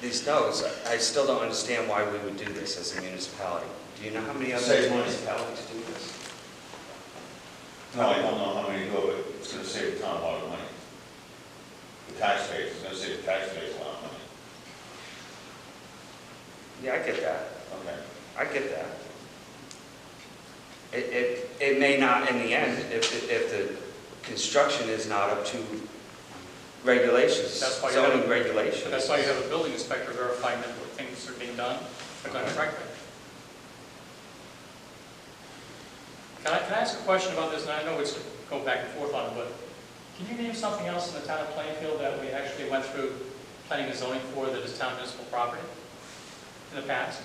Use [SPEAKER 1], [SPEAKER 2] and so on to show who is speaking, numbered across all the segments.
[SPEAKER 1] these notes, I still don't understand why we would do this as a municipality. Do you know how many other
[SPEAKER 2] Save money.
[SPEAKER 1] municipalities do this?
[SPEAKER 2] No, I don't know how many do it, it's gonna save the town a lot of money. The taxpayers, it's gonna save the taxpayers a lot of money,
[SPEAKER 1] Yeah, I get that.
[SPEAKER 2] okay.
[SPEAKER 1] I get that. It, it, it may not, in the end, if, if the construction is not up to regulations,
[SPEAKER 3] That's why you have-
[SPEAKER 1] zoning regulations.
[SPEAKER 3] But that's why you have a building inspector verifying that what things are being done are done correctly. Can I, can I ask a question about this, and I know it's going back and forth on it, but can you name something else in the town of Plainfield that we actually went through planning and zoning for that is town municipal property in the past?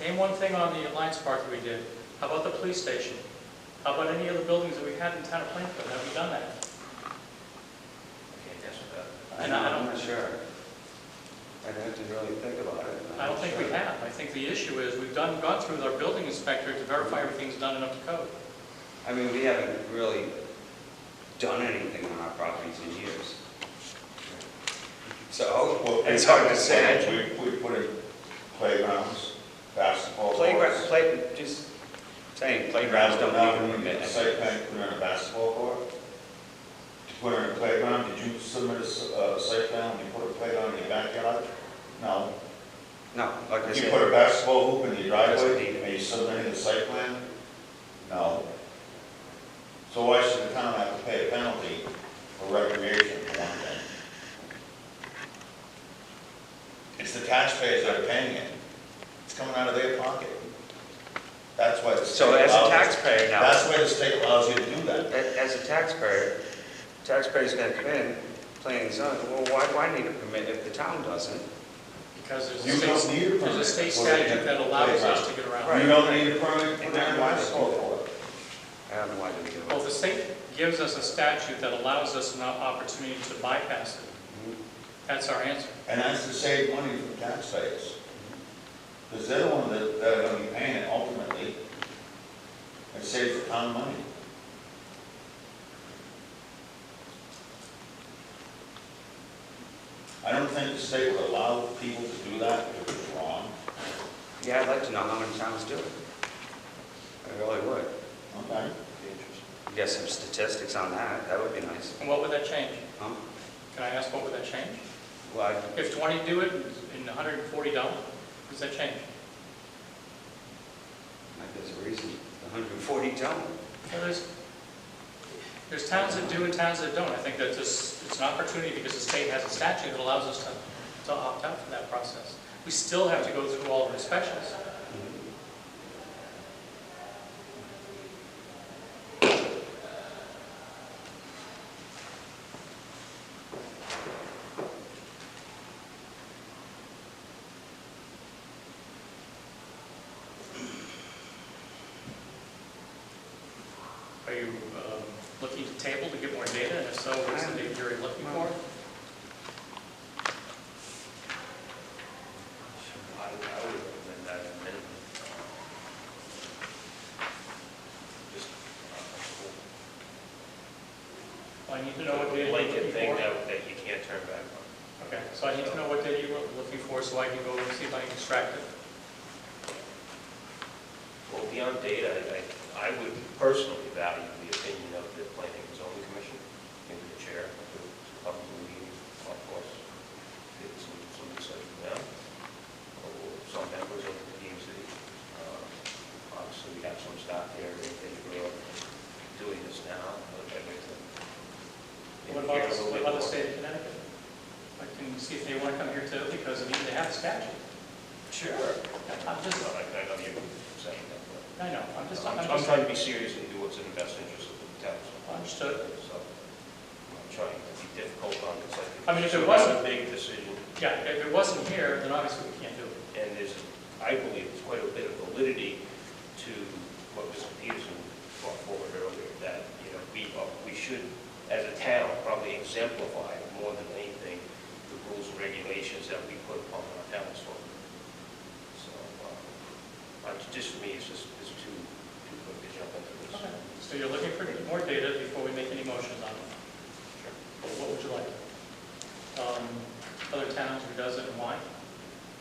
[SPEAKER 3] Name one thing on the Alliance Park that we did, how about the police station? How about any other buildings that we had in town of Plainfield, have we done that?
[SPEAKER 1] I'm
[SPEAKER 3] And I don't-
[SPEAKER 1] not sure. I'd have to really think about it. I'm
[SPEAKER 3] I don't
[SPEAKER 1] not
[SPEAKER 3] think we
[SPEAKER 1] sure.
[SPEAKER 3] have. I think the issue is, we've done, gone through with our building inspector to verify everything's done and up to code.
[SPEAKER 1] I mean, we haven't really done anything on our properties in years. So,
[SPEAKER 2] Well,
[SPEAKER 1] it's hard to say.
[SPEAKER 2] We, we put in playgrounds, basketball courts.
[SPEAKER 1] Playground, play, just saying playgrounds don't
[SPEAKER 2] Now,
[SPEAKER 1] need
[SPEAKER 2] when you
[SPEAKER 1] permit.
[SPEAKER 2] get the site plan, put in a basketball court, to put in a playground, did you submit a, s- uh site plan, when you put a playground in your backyard? No.
[SPEAKER 1] No, like I
[SPEAKER 2] Did you put
[SPEAKER 1] said,
[SPEAKER 2] a basketball hoop in your
[SPEAKER 1] Doesn't need
[SPEAKER 2] driveway,
[SPEAKER 1] it.
[SPEAKER 2] and you submitted the site plan? No. So why should the town have to pay a penalty for recreation for one thing? It's the taxpayers that are paying it, it's coming out of their pocket. That's why the state
[SPEAKER 1] so as a
[SPEAKER 2] allows-
[SPEAKER 1] taxpayer now.
[SPEAKER 2] That's why the state allows you to do that.
[SPEAKER 1] A- As a taxpayer, taxpayer's gonna come in, playing zone, well, why, why need a permit if the town doesn't?
[SPEAKER 3] Because there's
[SPEAKER 2] You
[SPEAKER 3] a
[SPEAKER 2] don't need a
[SPEAKER 3] state, there's a
[SPEAKER 2] permit
[SPEAKER 3] state
[SPEAKER 2] for it.
[SPEAKER 3] statute that allows us to get
[SPEAKER 1] Right.
[SPEAKER 3] around.
[SPEAKER 2] You don't need a permit for that,
[SPEAKER 1] Exactly.
[SPEAKER 2] why is it for it?
[SPEAKER 1] I don't know why they do
[SPEAKER 3] Well,
[SPEAKER 1] it.
[SPEAKER 3] the state gives us a statute that allows us an opportunity to bypass it.
[SPEAKER 2] Mm-hmm.
[SPEAKER 3] That's our answer.
[SPEAKER 2] And that's to save money from taxpayers. Because they're the ones that, that are gonna be paying it ultimately. It saves the town money. I don't think the state would allow people to do that if it was wrong.
[SPEAKER 1] Yeah, I'd like to know how many towns do it. I really would.
[SPEAKER 2] Okay.
[SPEAKER 1] Get some statistics on that, that would be nice.
[SPEAKER 3] And what would that change?
[SPEAKER 1] Huh?
[SPEAKER 3] Can I ask what would that change?
[SPEAKER 1] Well, I-
[SPEAKER 3] If 20 do it and 140 don't, does that change?
[SPEAKER 1] like, there's a reason, 140 don't.
[SPEAKER 3] Well, There's, there's towns that do and towns that don't. I think that this, it's an opportunity because the state has a statute that allows us to, to opt out from that process. We still have to go through all the inspections. Are you um, looking to table to get more data? And if so, what's the data you're looking for? Well, I need to know what data you're looking
[SPEAKER 4] blanket thing
[SPEAKER 3] for.
[SPEAKER 4] that, that you can't turn back on.
[SPEAKER 3] Okay, so I need to know what data you're looking for so I can go and see if I can extract it.
[SPEAKER 4] Well, beyond data, I, I would personally value the opinion of the planning and zoning commission, maybe the chair, who probably meeting, of course, did some, some discussion with them, or some members of the DMC. Uh, Obviously, we have some staff here, they they agree on doing this now, but I'd like to.
[SPEAKER 3] What
[SPEAKER 4] maybe
[SPEAKER 3] about,
[SPEAKER 4] hear a
[SPEAKER 3] the-
[SPEAKER 4] little
[SPEAKER 3] what about the
[SPEAKER 4] bit more.
[SPEAKER 3] state of Connecticut? I can see if they want to come here too, because I mean, they have a statute.
[SPEAKER 4] Sure.
[SPEAKER 3] I'm just-
[SPEAKER 4] No, I I know you're saying that, but.
[SPEAKER 3] I know, I'm just,
[SPEAKER 4] I'm
[SPEAKER 3] I'm
[SPEAKER 4] I'm
[SPEAKER 3] just.
[SPEAKER 4] trying to be serious and do what's in the best interest of the town. so-
[SPEAKER 3] Understood.
[SPEAKER 4] So, I'm trying to be difficult on this.
[SPEAKER 3] I mean, if it wasn't-
[SPEAKER 4] It's a big decision,
[SPEAKER 3] Yeah, if it wasn't here, then obviously we can't do it.
[SPEAKER 4] and there's, I believe, there's quite a bit of validity to what Mr. Peterson brought forward earlier, that, you know, we, uh, we should, as a town, probably exemplify more than anything the rules and regulations that we put upon our
[SPEAKER 3] Um,
[SPEAKER 4] uh,